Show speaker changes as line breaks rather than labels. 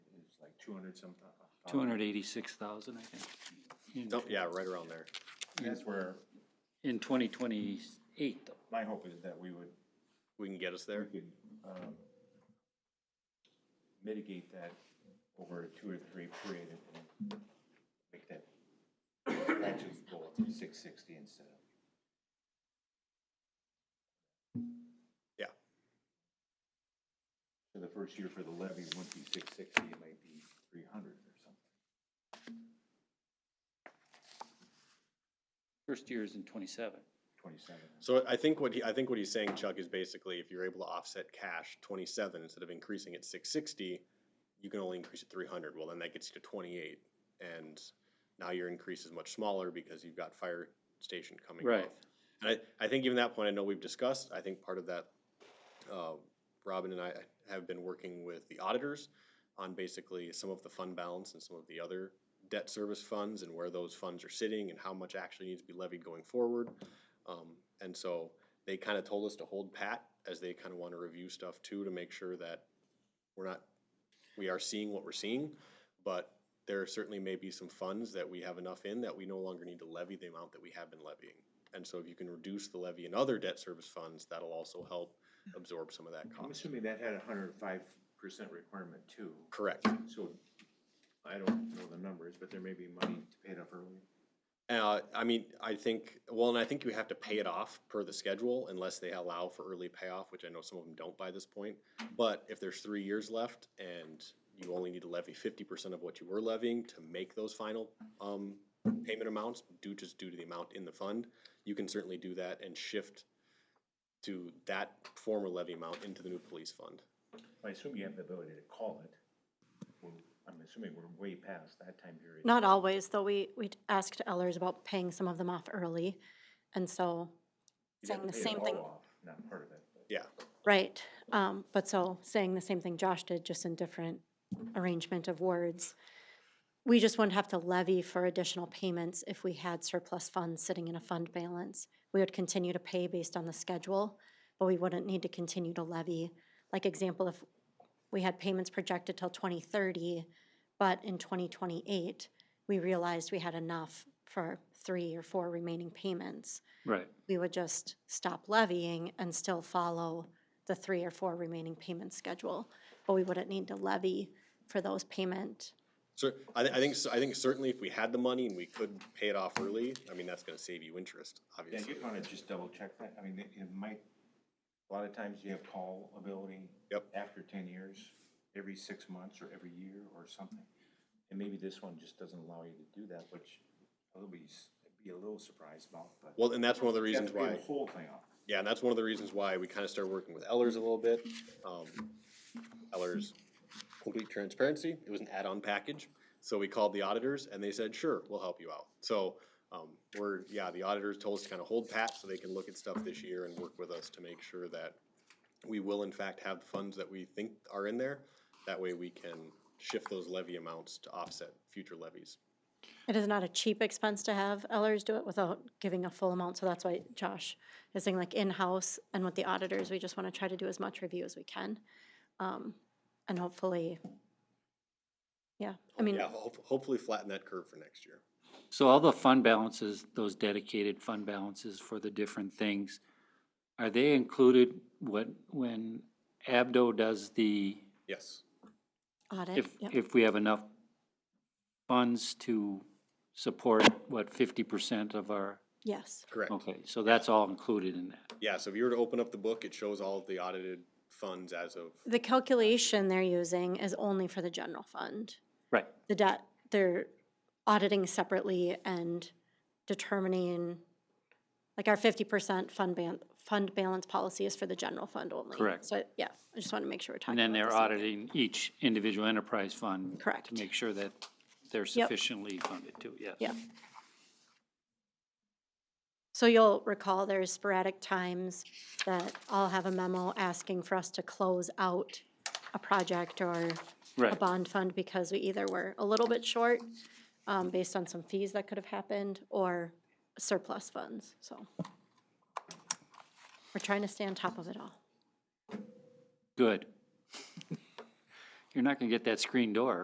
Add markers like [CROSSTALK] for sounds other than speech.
two hundred some thou- uh,
two hundred eighty-six thousand, I think. in-
Oh, yeah, right around there.
That's where
In twenty twenty-eight, though.
my hope is that we would,
We can get us
we
there.
could, um, mitigate that over a two or three period and make that actually go up to six sixty instead of.
Yeah.
So the first year for the levy wouldn't be six sixty, it might be three hundred or something.
First year is in twenty-seven.
Twenty-seven.
So I think what he, I think what he's saying, Chuck, is basically if you're able to offset cash twenty-seven instead of increasing it six sixty, you can only increase it three hundred. Well, then that gets you to twenty-eight, and now your increase is much smaller because you've got fire station coming off.
Right.
And I, I think even that point, I know we've discussed, I think part of that, uh, Robin and I have been working with the auditors on basically some of the fund balance and some of the other debt service funds and where those funds are sitting and how much actually needs to be levied going forward. Um, and so they kind of told us to hold pat as they kind of want to review stuff too, to make sure that we're not, we are seeing what we're seeing. But there certainly may be some funds that we have enough in that we no longer need to levy the amount that we have been levying. And so if you can reduce the levy in other debt service funds, that'll also help absorb some of that
I'm
cost.
assuming that had a hundred and five percent requirement too.
Correct.
So I don't know the numbers, but there may be money to pay it off early.
Uh, I mean, I think, well, and I think you have to pay it off per the schedule unless they allow for early payoff, which I know some of them don't by this point. But if there's three years left and you only need to levy fifty percent of what you were levying to make those final, um, payment amounts due, just due to the amount in the fund, you can certainly do that and shift to that former levy amount into the new police fund.
I assume you have the ability to call it. Well, I'm assuming we're way past that time period.
Not always, though. We, we asked Ellers about paying some of them off early. And so,
You'd have to
saying the
pay it
same
all
thing.
off, Not part of it. but-
Yeah,
right, um, but so saying the same thing Josh did, just in different arrangement of words. We just wouldn't have to levy for additional payments if we had surplus funds sitting in a fund balance. We would continue to pay based on the schedule, but we wouldn't need to continue to levy. Like example, if we had payments projected till twenty thirty, but in twenty twenty-eight, we realized we had enough for three or four remaining payments.
Right.
we would just stop levying and still follow the three or four remaining payment schedule. But we wouldn't need to levy for those payment.
so I, thi- I think, I think certainly if we had the money and we could pay it off early, I mean, that's gonna save you interest,
Yeah,
obviously.
you'd wanna just double check that. I mean, it, it might, a lot of times you have call ability.
Yep.
After ten years, every six months or every year or something. And maybe this one just doesn't allow you to do that, which I'll be, s- be a little surprised about, but.
Well, and that's one of the
You have
reasons
to pay
why,
The whole thing off.
yeah, and that's one of the reasons why we kind of started working with Ellers a little bit. Um, Ellers, complete transparency, it was an add-on package. So we called the auditors and they said, sure, we'll help you out. So, um, we're, yeah, the auditors told us to kind of hold pat so they can look at stuff this year and work with us to make sure that we will in fact have the funds that we think are in there. That way we can shift those levy amounts to offset future levies.
It is not a cheap expense to have Ellers do it without giving a full amount, so that's why Josh is saying like in-house and with the auditors, we just want to try to do as much review as we can. Um, And hopefully, yeah, I mean,
Yeah, ho- hopefully flatten that curve for next year.
So all the fund balances, those dedicated fund balances for the different things, are they included what, when Abdo does the,
Yes.
audit,
if,
yeah,
if we have enough funds to support, what, fifty percent of our,
yes.
Correct.
okay, so that's all included in that?
Yeah, so if you were to open up the book, it shows all of the audited funds as of,
The calculation they're using is only for the general fund.
Right,
the debt, they're auditing separately and determining, like our fifty percent fund ban, fund balance policy is for the general fund only.
Correct.
So, yeah, I just want to make sure we're talking
and then
about
they're
the same-
auditing each individual enterprise fund?
Correct.
To make sure that they're
Yep.
sufficiently funded too, yes.
Yeah. So you'll recall there's sporadic times that I'll have a memo asking for us to close out a project or a
Right,
bond fund because we either were a little bit short, um, based on some fees that could have happened, or surplus funds, so. We're trying to stay on top of it all.
[LAUGHS] good. You're not gonna get that screen door